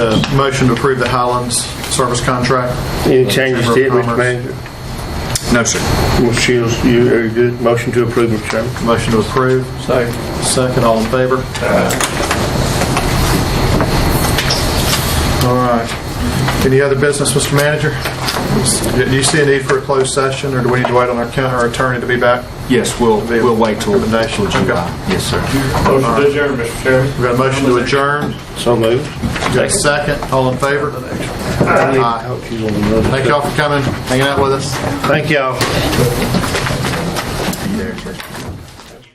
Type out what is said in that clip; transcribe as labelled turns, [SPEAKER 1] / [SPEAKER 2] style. [SPEAKER 1] A Uh, motion to approve the Highlands service contract?
[SPEAKER 2] Any changes to it,
[SPEAKER 1] Chamber of
[SPEAKER 2] Mr.
[SPEAKER 1] Commerce?
[SPEAKER 2] Manager?
[SPEAKER 1] No, sir.
[SPEAKER 2] Ms. Shields, you are good. Motion to approve, Mr. Chairman.
[SPEAKER 1] Motion to approve? Second. Second, all in favor? All right. Any other business, Mr. Manager? Do you see a need for a closed session, or do we need to wait on our county, our attorney to be back?
[SPEAKER 3] Yes, we'll, we'll wait till
[SPEAKER 1] Recommendation.
[SPEAKER 3] till July. Yes, sir.
[SPEAKER 4] Motion to adjourn, Mr. Chairman.
[SPEAKER 1] We got a motion to adjourn,
[SPEAKER 2] So moved.
[SPEAKER 1] we got a second, all in favor?
[SPEAKER 2] I
[SPEAKER 1] Aye.
[SPEAKER 2] hope she's on another.
[SPEAKER 1] Thank y'all for coming, hanging out with us.
[SPEAKER 2] Thank y'all.